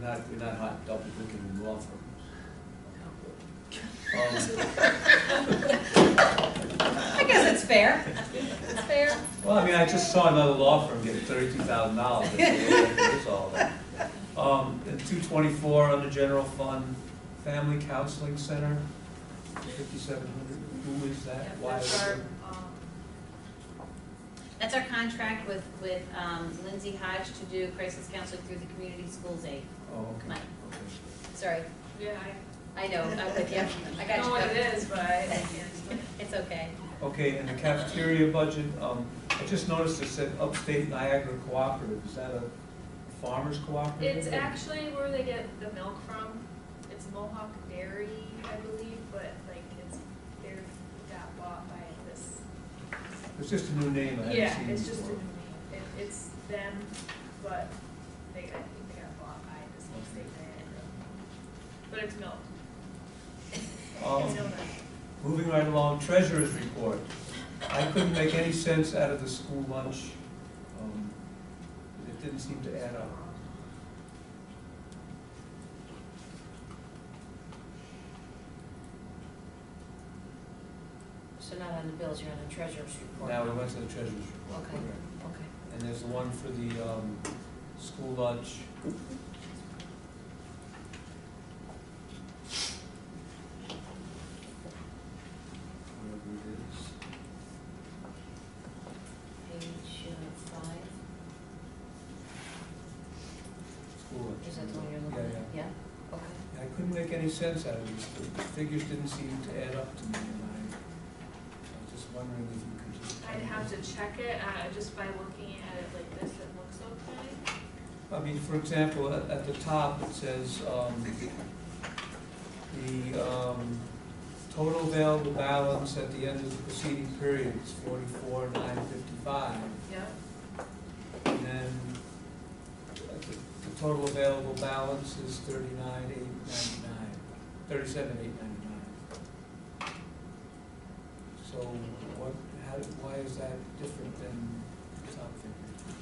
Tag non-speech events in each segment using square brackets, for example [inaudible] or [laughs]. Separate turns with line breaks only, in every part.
not, you're not hot double booking law firms. Um,
I guess it's fair. It's fair.
Well, I mean, I just saw another law firm get thirty-two thousand dollars, that's all that. Um, and two twenty-four under general fund, family counseling center, fifty-seven hundred, who is that? Why is
That's our,
it-
um,
That's our contract with, with um, Lindsay Hodge to do crisis counseling through the community schools aid.
Oh, okay,
Mike.
okay.
Sorry,
Yeah,
I know, I'm with [laughs] you, I
I
got
know
you.
what
covered.
it is, but I can't.
It's okay.
Okay, and the cafeteria budget, um, I just noticed it said Upstate Niagara Cooperative, is that a farmer's cooperative?
[laughs] It's actually where they get the milk from. It's Mohawk Dairy, I believe, but like it's, they're, got bought by this.
It's just a new name, I haven't seen
Yeah,
before.
it's just a new name. It, it's them, but they, I think they got bought by this whole state there. But it's milk.
Um,
It's donut.
Moving right along, treasurer's report. I couldn't make any sense out of the school lunch. Um, It didn't seem to add up.
So not on the bills, you're on the treasurer's report.
Now, we went to the treasurer's report.
Okay.
correct.
Okay.
And there's the one for the um, school lunch. Whatever it is.
Page uh, five,
School lunch.
is that the one you're looking
Yeah,
at?
yeah.
Yeah, okay.
I couldn't make any sense out of these, the figures didn't seem to add up to me, and I, I was just wondering if you could just.
I'd have to check it, uh, just by looking at it like this, it looks okay.
I mean, for example, at, at the top, it says, um, the, um, total available balance at the end of the preceding period is forty-four, nine fifty-five.
Yeah.
And then uh, the, the total available balance is thirty-nine, eight ninety-nine, thirty-seven, eight ninety-nine. So what, how, why is that different than the top figure?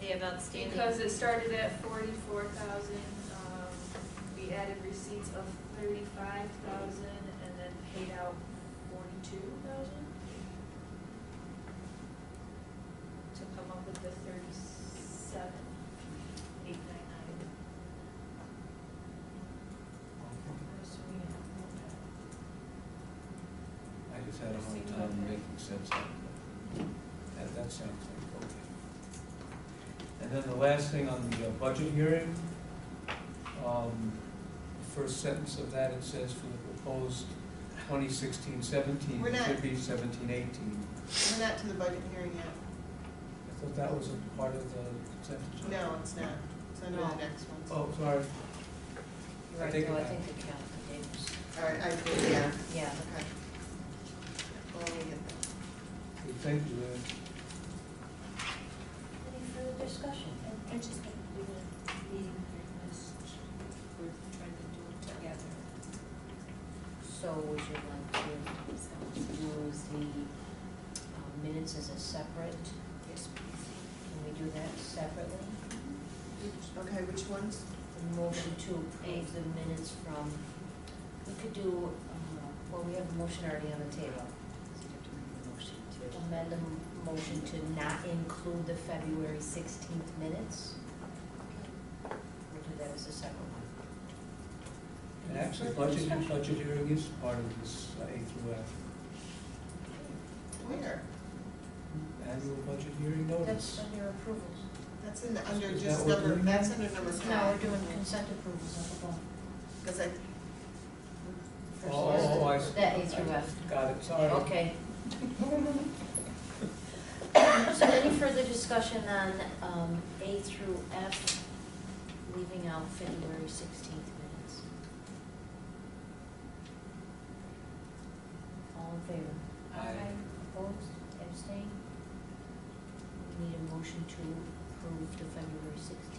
They have outstanding.
Because it started at forty-four thousand, um, we added receipts of thirty-five thousand and then paid out forty-two thousand? To come up with the thirty-seven, eight nine nine. I'm assuming it won't matter.
I just had a hard time making sense out of that. That, that sounds like, okay. And then the last thing on the uh, budget hearing, um, the first sentence of that, it says for the proposed 2016-17,
We're
it
not-
should be 17-18.
We're not to the budget hearing yet.
I thought that was a part of the consent agenda.
No, it's not. It's under the next one.
Oh, sorry,
You're right,
think
no, I
it-
think the count, the dates.
All right, I, did, yeah,
Yeah,
okay. Well, let me get that.
Good, thank you, Lynn.
any further discussion?
I just think we would be, we're trying to do it together.
So would you like to use the uh, minutes as a separate? Yes, please. Can we do that separately?
Okay, which ones?
The motion to approve the minutes from, we could do, uh, well, we have a motion already on the table. Amend the m- motion to not include the February sixteenth minutes. We'll do that as a separate one.
And actually,
Further
budget,
discussion?
budget hearing is part of this uh, A through F,
Where?
annual budget hearing notice.
That's under approvals.
That's in, the- under
Is
just
that what
number,
we're-
that's under number five.
Now we're doing consent approvals of the bond.
Because I,
Oh, oh, oh, I see.
That A through F.
Got it, sorry. [laughs]
Okay. So any further discussion on um, A through F, leaving out February sixteenth minutes? All in favor?
Aye.
Opposed, abstained? We need a motion to approve the February sixteenth